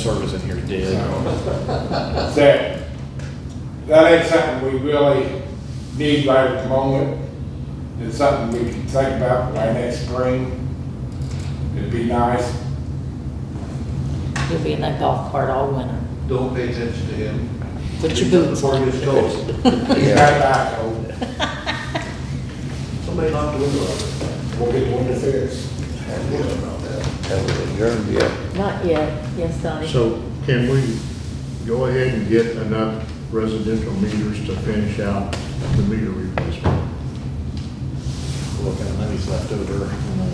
service in here did. that, that ain't something we really need right at the moment. It's something we can think about by next spring. It'd be nice. You'll be in that golf cart all winter. Don't pay attention to him. Put your He's boots up Before on. he gets cold. He's got an eye cold. Somebody knocked the window out. We'll get one of theirs. Not yet, yes, Donnie. So can we go ahead and get enough residential meters to finish out the meter replacement? Look at money's left over.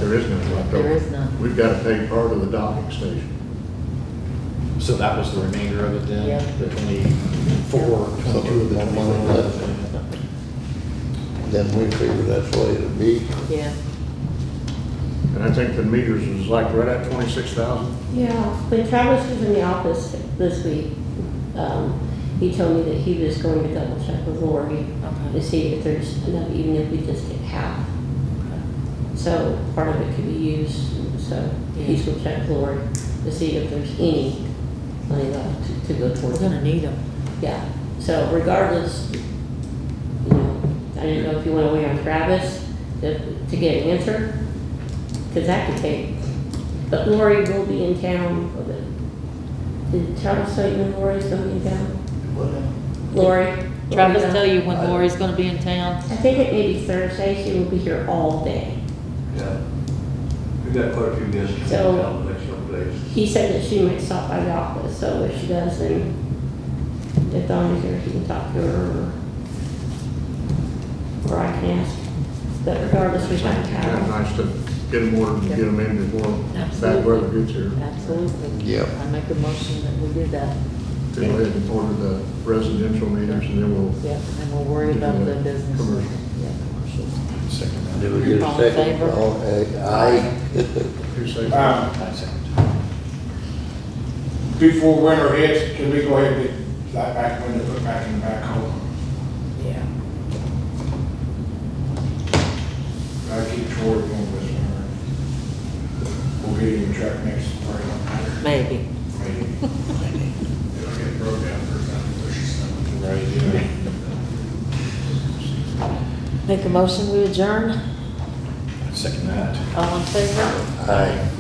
There is none left over. There is none. We've got to pay part of the docking station. So that was the remainder of it then? Yeah. The twenty-four, twenty-two of the One month twenty-one. Then we figure that's the way it'll be. Yeah, And I think the meters is like right at twenty-six thousand. Yeah, when Travis was in the office this week, um, he told me that he was going to double check with Lori Okay. to see if there's enough, even if we just get half. So part of it could be used, so he's gonna check with Lori to see if there's any money left to go we're towards gonna it. need them. Yeah, so regardless, you know, I didn't know if you went away on Travis to, to get an answer, because that could take, but Lori will be in town. for the- Did Travis tell you when Lori's gonna be in town? Lori? Travis tell you when Lori's gonna be in town? I think it may be Thursday, she will be here all day. Yeah. We've got quite a few guests coming So- down the next couple days. He said that she might stop by the office, so if she does, then if Donna's here, she can talk to her or, or I can ask. But regardless, we might Kind of have. nice to get them ordered and get them in before bad weather gets here. Absolutely. I Yep. make a motion that we do that. Go ahead and order the residential meters and then we'll, Yeah, and we'll worry about the business. Commercial. Yeah, commercial. Second, Do we get a All in second? favor? All- eh, Aye. who says? Um, I second. before winter hits, can we go ahead and get that back window put back in the backhoe? Yeah. I keep toward one this winter. We'll get him a truck next spring. Maybe. Maybe. It'll get broke down for about push something. Right, yeah. Make a motion, we adjourn. I Second that. All in favor? Aye.